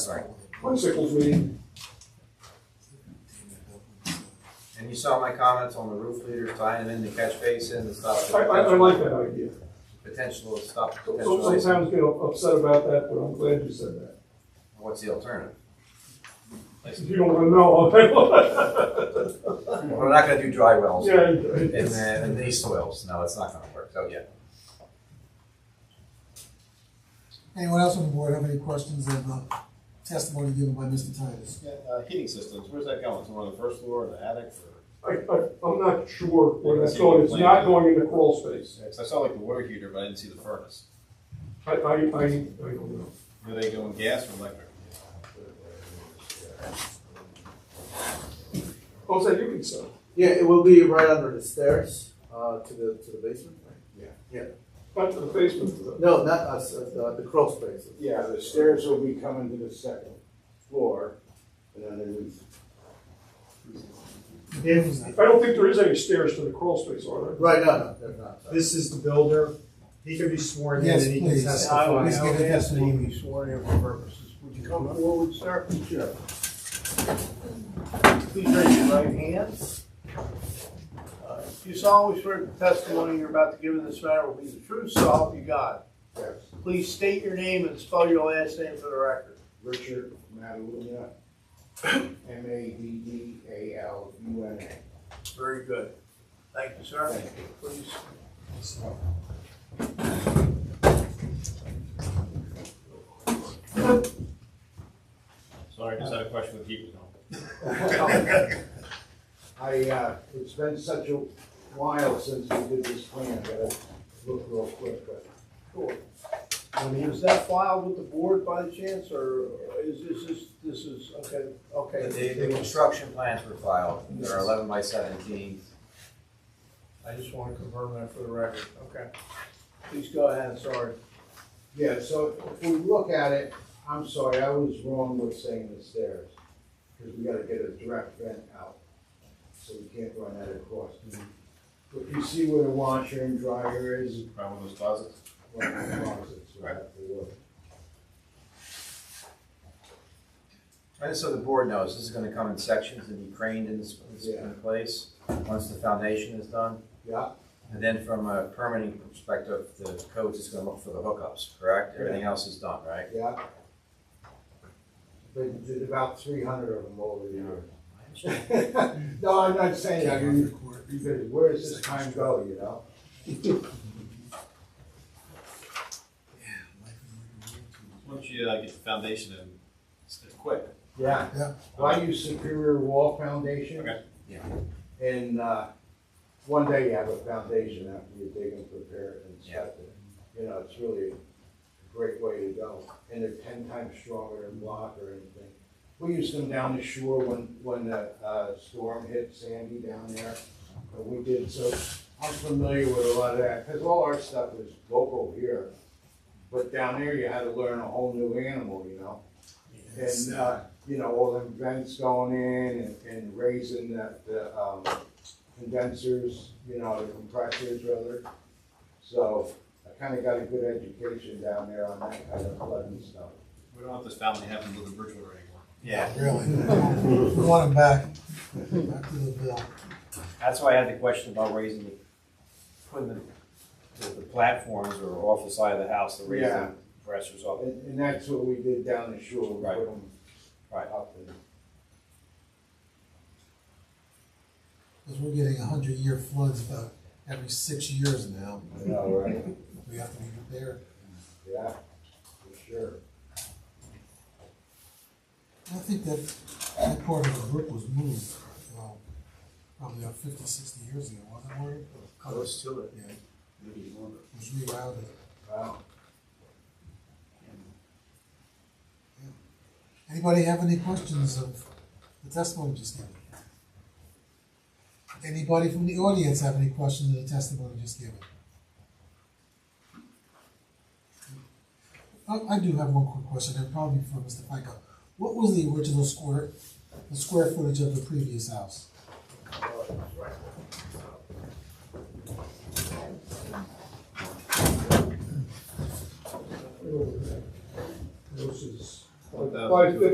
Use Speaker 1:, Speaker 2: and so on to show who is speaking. Speaker 1: Sorry.
Speaker 2: Twenty-sixth meeting,
Speaker 1: And you saw my comments on the roof leaders, tying them in the catch basin and stuff.
Speaker 2: I, I, I like that idea.
Speaker 1: Potential of stuff,
Speaker 2: So-
Speaker 1: potential
Speaker 2: so-
Speaker 1: waste.
Speaker 2: Sometimes get upset about that, but I'm glad you said that.
Speaker 1: What's the alternative?
Speaker 2: If you don't wanna know, I'll tell you.
Speaker 1: We're not gonna do dry wells.
Speaker 2: Yeah,
Speaker 1: And
Speaker 2: it's,
Speaker 1: then, and these soils, no, it's not gonna work, so yeah.
Speaker 3: Anyone else on the board have any questions of the testimony given by Mr. Titus?
Speaker 4: Yeah, uh, heating systems, where's that going? Somewhere on the first floor or the attic or?
Speaker 2: I, I, I'm not sure where that's going, it's not going into crawl space.
Speaker 4: Cause I saw like the water heater, but I didn't see the furnace.
Speaker 2: I, I, I, I don't know.
Speaker 4: Are they going gas or electric?
Speaker 2: Oh, so you can sell.
Speaker 5: Yeah, it will be right under the stairs uh, to the to the basement. Right?
Speaker 2: Back to the basement.
Speaker 5: No, not us. Uh, the, the crawl space.
Speaker 6: Yeah, the stairs will be coming to the second floor and underneath.
Speaker 2: I don't think there is any stairs to the crawl space, are there?
Speaker 5: Right. No, no, they're not.
Speaker 7: This is the builder. He can be sworn in
Speaker 3: Yes,
Speaker 7: and he can
Speaker 3: please.
Speaker 7: testify.
Speaker 3: I would- I would ask that he
Speaker 7: be sworn in for purposes. Would you come forward, sir?
Speaker 6: Sure.
Speaker 7: Please raise your right hand. Uh, You solemnly swear the testimony you're about to give in this matter will be the truth, so help you God.
Speaker 6: Yes.
Speaker 7: Please state your name and spell your last name for the record.
Speaker 6: Richard Madalunya, M A D D A L U N A.
Speaker 7: Very good. Thank you, sir.
Speaker 6: Thank you.
Speaker 7: Please.
Speaker 4: Sorry, I just had a question with heat was on.
Speaker 6: I, uh, it's been such a while since we did this plan, I gotta look real quick, but
Speaker 7: Sure. I mean, is that filed with the board by the chance, or is this, this, this is, okay,
Speaker 1: The,
Speaker 7: okay.
Speaker 1: the construction plans were filed, they're eleven by seventeen.
Speaker 7: I just want to confirm that for the record, okay. Please go ahead, sorry.
Speaker 6: Yeah, so if we look at it, I'm sorry, I was wrong with saying the stairs, because we gotta get a direct vent out, so we can't run that across. But you see where the washer and dryer is,
Speaker 4: Probably one of those closets.
Speaker 6: well, the closets, we have to look.
Speaker 1: And so the board knows, this is gonna come in sections and be craned in this, this
Speaker 6: Yeah.
Speaker 1: place, once the foundation is done.
Speaker 6: Yeah,
Speaker 1: And then from a permitting perspective, the code's is gonna look for the hookups, correct?
Speaker 6: Yeah.
Speaker 1: Everything else is done, right?
Speaker 6: yeah. They did about three hundred of them over the years. No, I'm not saying, I mean, because where does this time go, you know?
Speaker 4: Once you uh, get the foundation in, it's they're quick.
Speaker 6: Yeah.
Speaker 3: Yeah.
Speaker 6: Well, I use Superior Wall Foundation.
Speaker 4: Okay.
Speaker 1: Yeah.
Speaker 6: And, uh, one day you have a foundation after you dig and prepare it and inspect it. You know, it's really a great way to go, and they're ten times stronger than block or anything. We use them down the shore when, when the, uh, storm hit Sandy down there, but we did, so I'm familiar with a lot of that, cause all our stuff is local here. But down there, you had to learn a whole new animal, you know? And, uh, you know, all them vents going in and, and raising the, the, um, condensers, you know, the compressors rather. So I kinda got a good education down there on that kind of flooding stuff.
Speaker 4: We don't want this family having to live in Bridgewater anymore.
Speaker 1: Yeah,
Speaker 3: Really? We want him back. Back to the bill.
Speaker 1: that's why I had the question about raising the, putting the, the- the platforms or off the side of the house to raise
Speaker 6: Yeah.
Speaker 1: the compressors up.
Speaker 6: And, and that's what we did down the shore, we
Speaker 1: Right.
Speaker 6: put them
Speaker 1: Right.
Speaker 6: up and,
Speaker 3: Because we're getting a hundred year floods about every six years now.
Speaker 6: you know, right?
Speaker 3: We have to be prepared.
Speaker 6: Yeah, for sure.
Speaker 3: I think that that part of the roof was moved, well, probably about fifty, sixty years ago, wasn't it? Warren?
Speaker 1: Close to it.
Speaker 3: Yeah. It was rerouted.
Speaker 6: Wow.
Speaker 3: Anybody have any questions of the testimony just given? Anybody from the audience have any questions of the testimony just given? I, I do have one quick question, and probably for Mr. Franco. What was the original square, the square footage of the previous house?
Speaker 2: This is
Speaker 4: One thousand
Speaker 2: Five
Speaker 4: two
Speaker 2: fifty